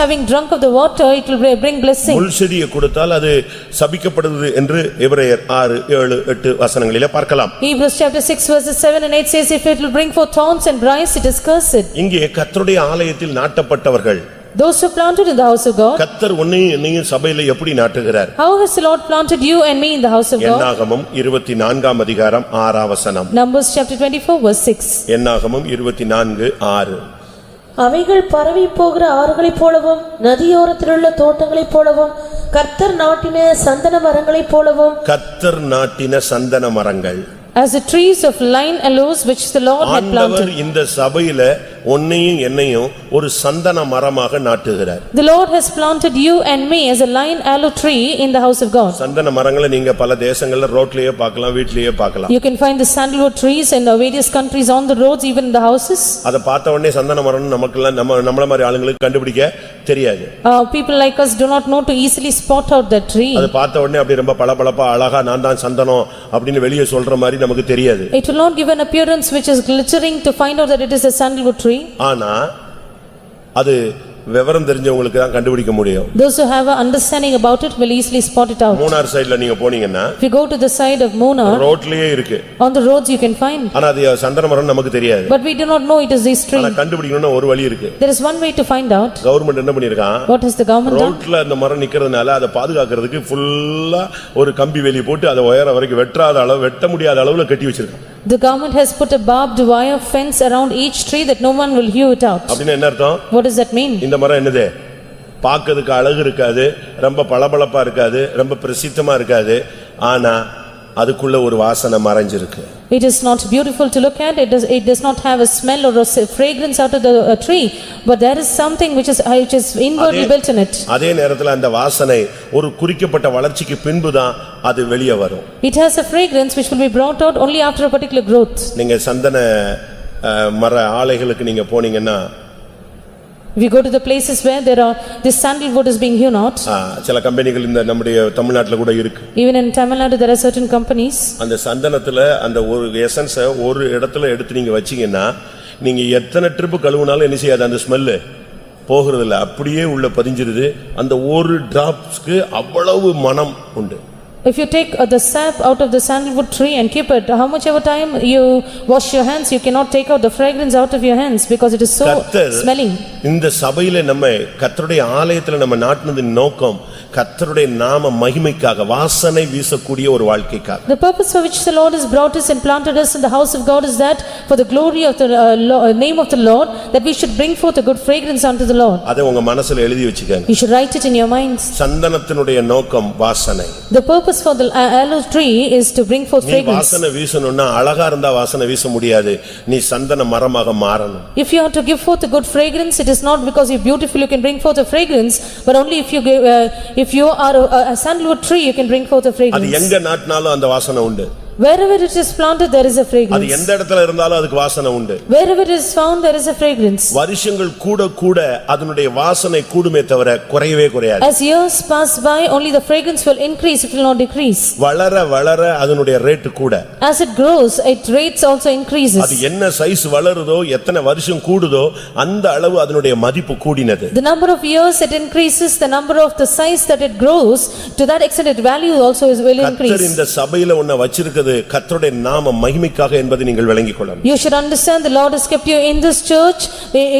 Having drunk of the water, it will bring blessing. முள் செடியை கொடுத்தால் அது சபிக்கப்படுது என்று எபிரேயர் ஆறு ஏழு எட்டு வசனங்களிலே பார்க்கலாம் Hebrews chapter 6 verses 7 and 8 says, "If it will bring forth thorns and briars, it is cursed." இங்கே கர்த்தருடைய ஆலயத்தில் நாட்டப்பட்டவர்கள் Those who planted in the house of God, கத்தர் உன்னையும் என்னையும் சபையில எப்படி நாட்டுகிறார் how has the Lord planted you and me in the house of God? என்னாகமம் இருபத்தி நான்காம் அதிகாரம் ஆறாம் வசனம் Numbers chapter 24 verse 6. என்னாகமம் இருபத்தி நான்கு ஆறு அவைகள் பரவி போகிற ஆறுகளைப் போலவும் நதியோரத்திலுள்ள தோட்டங்களைப் போலவும் கர்த்தர் நாட்டின சந்தன மரங்களைப் போலவும் கத்தர் நாட்டின சந்தன மரங்கள் As the trees of line aloes which the Lord had planted. ஆண்டவர் இந்த சபையில உன்னையும் என்னையும் ஒரு சந்தன மரமாக நாட்டுகிறார் The Lord has planted you and me as a line aloe tree in the house of God. சந்தன மரங்களை நீங்க பல தேசங்கள்ல ரோட்லயே பார்க்கலாம் வீட்லயே பார்க்கலாம் You can find the sandalwood trees in the various countries on the roads, even in the houses. அதை பார்த்த உடனே சந்தன மரம்னு நமக்கெல்லாம் நம்ம நம்மள மாதிரி ஆளுங்களுக்கு கண்டுபிடிக்க தெரியாது Uh, People like us do not know to easily spot out that tree. அதை பார்த்த உடனே அப்படி ரொம்ப பளபளப்பா அழகா நான் தான் சந்தனம் அப்படின்னு வெளியே சொல்ற மாதிரி நமக்கு தெரியாது It will not give an appearance which is glittering to find out that it is a sandalwood tree. ஆனா அது விவரம் தெரிஞ்சவங்களுக்கு தான் கண்டுபிடிக்க முடியும் Those who have an understanding about it will easily spot it out. Munnar சைடுல நீங்க போனீங்கன்னா If you go to the side of Mona, ரோட்லயே இருக்கு on the roads you can find. ஆனா அது சந்தன மரம் நமக்கு தெரியாது But we do not know it is this ஆனா tree. கண்டுபிடிக்கணும்னா ஒரு வழி இருக்கு There is one way to find out. Government என்ன பண்ணிருக்கான் What has the government done? ரோட்ல அந்த மரம் நிக்கிறதுனால அதை பாதுகாக்கிறதுக்கு ஃபுல்லா ஒரு கம்பி வேலி போட்டு அதை உயர வரைக்கும் வெட்டாத அளவு வெட்ட முடியாத அளவுல கட்டி வச்சிருக்கான் The government has put a barbed wire fence around each tree that no one will hew it out. அப்படின்னு என்ன அர்த்தம் What does that mean? இந்த மரம் என்னது பார்க்கிறதுக்கு அழகு இருக்காது ரொம்ப பளபளப்பா இருக்காது ரொம்ப பிரசித்தமா இருக்காது ஆனா அதுக்குள்ள ஒரு வாசனை மறைஞ்சிருக்கு It is not beautiful to look at, it does, it does not have a smell or a s- fragrance out of the uh, tree, but there is something which is, uh, which is inwardly built in it. அதே நேரத்துல அந்த வாசனை ஒரு குறிக்கப்பட்ட வளர்ச்சிக்கு பின்புதான் அது வெளியே வரும் It has a fragrance which will be brought out only after a particular growth. நீங்க சந்தன அஹ், மர ஆலைகளுக்கு நீங்க போனீங்கன்னா If you go to the places where there are, this sandalwood is being hewn out, அஹ், சில கம்பெனிகள் இந்த நம்முடைய தமிழ்நாட்டுல கூட இருக்கு even in Tamil Nadu, there are certain companies. அந்த சந்தனத்துல அந்த ஒரு எசன்ஸ ஒரு இடத்துல எடுத்து நீங்க வச்சீங்கன்னா நீங்க எத்தனை ட்ரிப் கழுவுனாலும் என்ன செய்யாது அந்த ஸ்மெல்லு போகிறது இல்ல அப்படியே உள்ள பதிஞ்சிருது அந்த ஒரு டிராப்ஸ்க்கு அவ்வளவு மனம் உண்டு If you take uh, the sap out of the sandalwood tree and keep it, how much ever time you wash your hands, you cannot take out the fragrance out of your hands because it is so கத்தர் smelling. இந்த சபையில நம்ம கத்தருடைய ஆலயத்துல நம்ம நாட்டினதின் நோக்கம் கத்தருடைய நாம மகிமைக்காக வாசனை வீசக்கூடிய ஒரு வாழ்க்கைக்காக The purpose for which the Lord has brought us and planted us in the house of God is that for the glory of the uh, Lo- uh, name of the Lord, that we should bring forth a good fragrance unto the Lord. அதை உங்க மனசுல எழுதி வச்சுக்கங்க You should write it in your minds. சந்தனத்தினுடைய நோக்கம் வாசனை The purpose for the a- aloe tree is to bring forth நீ fragrance. வாசனை வீசணும்னா அழகா இருந்தா வாசனை வீச முடியாது நீ சந்தன மரமாக மாறணும் If you are to give forth a good fragrance, it is not because you're beautiful you can bring forth a fragrance, but only if you give, uh, if you are a- a sandalwood tree, you can bring forth a அது fragrance. எங்க நாட்டினாலும் அந்த வாசனை உண்டு Wherever it is planted, there is a அது fragrance. எந்த இடத்துல இருந்தாலும் அதுக்கு வாசனை உண்டு Wherever it is found, there is a fragrance. வருஷங்கள் கூட கூட அதனுடைய வாசனை கூடுமே தவிர குறையவே குறையாது As years pass by, only the fragrance will increase, it will not decrease. வளர வளர அதனுடைய ரேட் கூட As it grows, its rates also அது increases. என்ன சைஸ் வளருதோ எத்தனை வருஷம் கூடுதோ அந்த அளவு அதனுடைய மதிப்பு கூடினது The number of years it increases, the number of the size that it grows, to that extent its value also is will கத்தர் increase. இந்த சபையில உன்னை வச்சிருக்கிறது கத்தருடைய நாம மகிமைக்காக என்பதை நீங்கள் விளங்கிக் கொள்ளணும் You should understand the Lord has kept you in this church,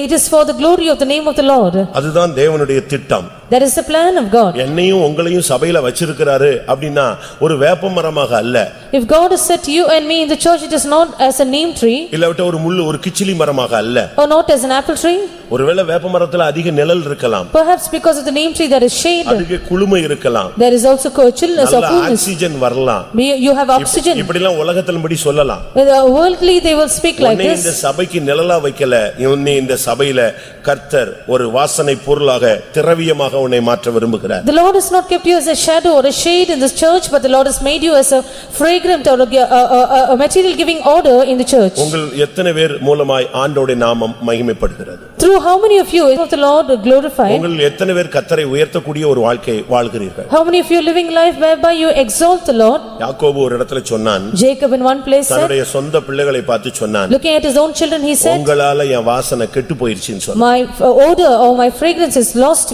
it is for the glory of the name of the Lord. அதுதான் தேவனுடைய திட்டம் That is the plan of God. என்னையும் உங்களையும் சபையில வச்சிருக்கிறாரு அப்படின்னா ஒரு வேப்ப மரமாக அல்ல If God has set you and me in the church, it is not as a name tree இல்லாவிட்ட ஒரு முள்ளு ஒரு கிச்சிலி மரமாக அல்ல or not as an apple tree, ஒருவேளை வேப்ப மரத்துல அதிக நிழல் இருக்கலாம் perhaps because of the name tree there is shade, அதிக குளுமை இருக்கலாம் there is also co- chillness or நல்ல coolness. ஆக்சிஜன் வரலாம் We- You have oxygen, இப்படிலாம் உலகத்தின்படி சொல்லலாம் With, uh, worldly they will speak like உன்னை this. இந்த சபைக்கு நிழலா வைக்கல உன்னை இந்த சபையில கர்த்தர் ஒரு வாசனை பொருளாக திரவியமாக உன்னை மாற்ற விரும்புகிறார் The Lord has not kept you as a shadow or a shade in this church, but the Lord has made you as a fragrant or a, a- a- a material giving order in the church. உங்கள் எத்தனை பேர் மூலமாய் ஆண்டோடைய நாமம் மகிமைப்படுகிறது Through how many of you is of the Lord glorified? உங்கள் எத்தனை பேர் கர்த்தரை உயர்த்தக்கூடிய ஒரு வாழ்க்கை வாழ்கிறீர்கள் How many of you living life whereby you exalt the Lord? யாக்கோபு ஒரு இடத்துல சொன்னான் Jacob in one place said, தன்னுடைய சொந்த பிள்ளைகளை பார்த்து சொன்னான் looking at his own children, he said, Oh. உங்களால என் வாசனை கெட்டு போயிருச்சுன்னு சொன்னான் "My uh, odor or my fragrance is lost